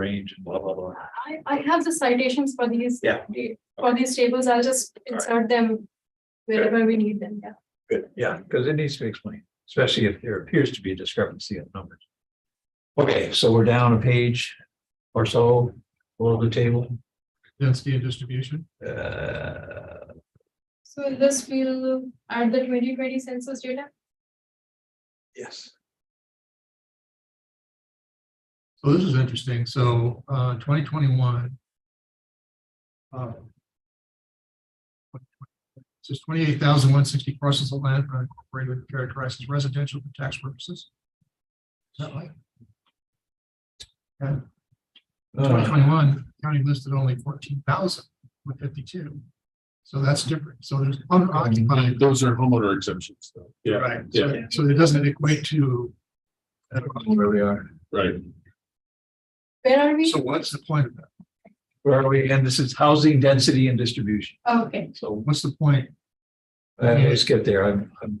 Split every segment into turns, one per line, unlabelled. range, and blah, blah, blah.
I, I have the citations for these.
Yeah.
For these tables, I'll just insert them wherever we need them, yeah.
Good, yeah, because it needs to be explained, especially if there appears to be a discrepancy in numbers. Okay, so we're down a page or so below the table.
density and distribution.
Uh,
So in this we'll add the twenty twenty census data.
yes.
So this is interesting. So uh twenty twenty-one. um, Says twenty-eight thousand one sixty parcels of land are incorporated and characterized as residential for tax purposes. Is that right? Twenty
Uh,
twenty-one, county listed only fourteen thousand with fifty-two. So that's different. So there's unoccupied.
Those are homeowner exemptions, though.
Right. So- So it doesn't equate to.
Where we are,
Right.
Where are we?
So what's the point of that?
where are we? And this is housing density and distribution.
Oh, Okay,
So
What's the point?
uh, let's get there. I'm, I'm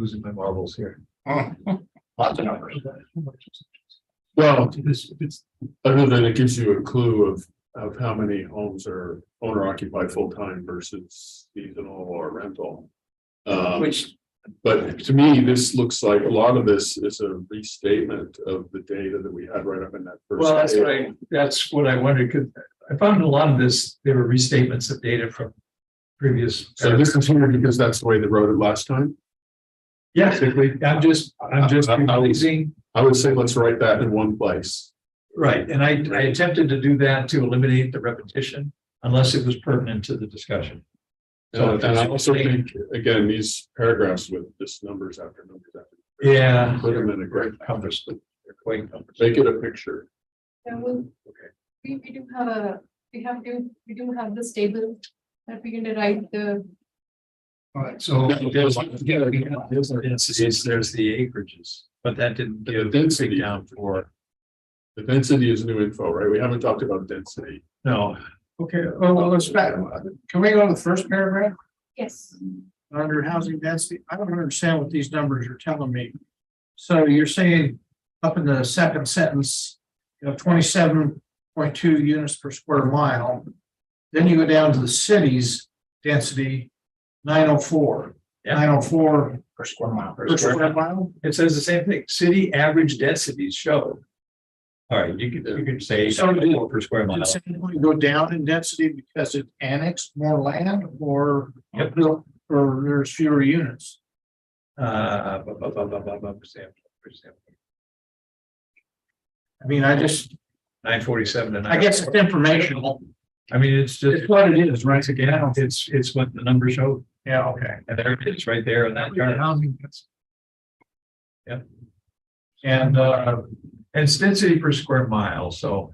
losing my marbles here. Lots of numbers.
Well,
It's, it's,
other than it gives you a clue of, of how many homes are owner occupied full time versus seasonal or rental. Uh,
Which,
but to me, this looks like a lot of this is a restatement of the data that we had right up in that. first.
well, that's what I,
table.
that's what I wondered, because I found a lot of this, there were restatements of data from previous.
So this is here because that's the way they wrote it last time.
Yes, I'm just, I'm just
I- I- I would-
releasing,
I would say let's write that in one place.
right, and I, I attempted to do that to eliminate the repetition unless it was pertinent to the discussion. So-
And and I also think, again, these paragraphs with just numbers after numbers after.
Yeah.
Put them in a great,
Compass, they're quite compass.
make it a picture.
then we'll, we, we do have a, we have to, we do have this table that we can derive the,
all right, so.
There's there's the acreages, but that didn't
The
give
density.
down for,
The density is new info, right? We haven't talked about density.
no,
Okay, well, well, let's back, can we go to the first paragraph
yes.
under housing density? I don't understand what these numbers are telling me. So you're saying up in the second sentence, you know, twenty-seven point two units per square mile. Then you go down to the city's density, nine oh four.
Yeah.
Nine oh four
per square mile.
per square mile?
It says the same thing, city average densities show. All right, you could, you could say
So it is-
per square mile.
Did Sandpoint go down in density because it annexed more land or?
Yep.
Or there's fewer units?
Uh, bu- bu- bu- bu- bu- bu- per sample, per sample.
I mean, I just,
Nine forty-seven and.
I guess it's informational.
I mean, it's just,
It's what it is, right?
once again, it's, it's what the numbers show,
Yeah, okay.
and there it is, right there in that chart.
Housing, that's-
Yep.
And uh,
And it's density per square mile, so,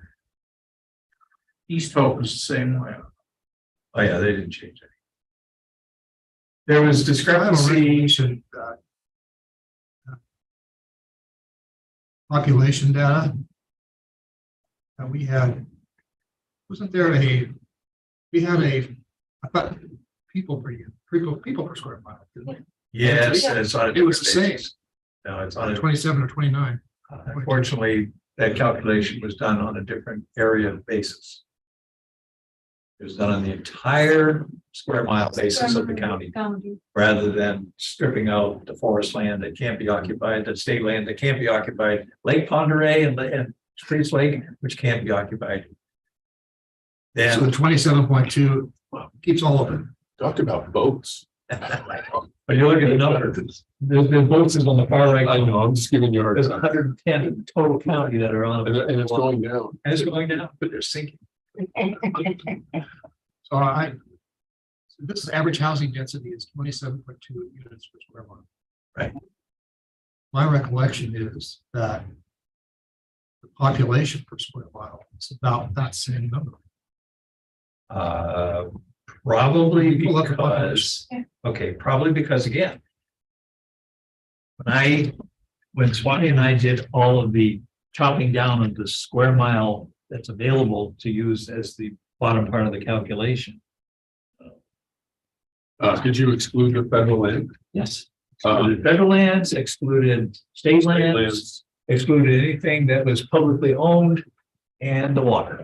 East Hope is the same way.
oh yeah, they didn't change it. There was discrepancy,
Population data. That we had. Wasn't there a, we had a, I thought, people per, unit, people, people per square mile, didn't we?
yes, and it's on. a
It was the
different
same.
basis. No, it's on a
Twenty-seven or twenty-nine.
Unfortunately, that calculation was done on a different area of basis. It was done on the entire square mile basis of the county,
County,
rather than stripping out the forest land that can't be occupied, the state land that can't be occupied, Lake Ponderay and, and Priest Lake, which can't be occupied.
So the
Then,
twenty-seven point two keeps all of it.
Talked about boats.
but you look at the number, there's, there's boxes on the far right.
I know, I'm just giving you a hard
There's
time.
hundred and ten in total county that are on.
And,
it,
and it's going down.
And it's going down, but they're sinking.
So I. so This average housing density is twenty-seven point two units per square mile.
Right.
My recollection is that. The population per square mile is about that same number.
Uh, probably
People look at
because,
Yeah.
okay, probably because again. When I, when Swanee and I did all of the chopping down of the square mile that's available to use as the bottom part of the calculation.
Uh, did you exclude the federal land?
Yes.
Uh,
Excluded federal lands, excluded state lands,
lands.
excluded anything that was publicly owned. and the water.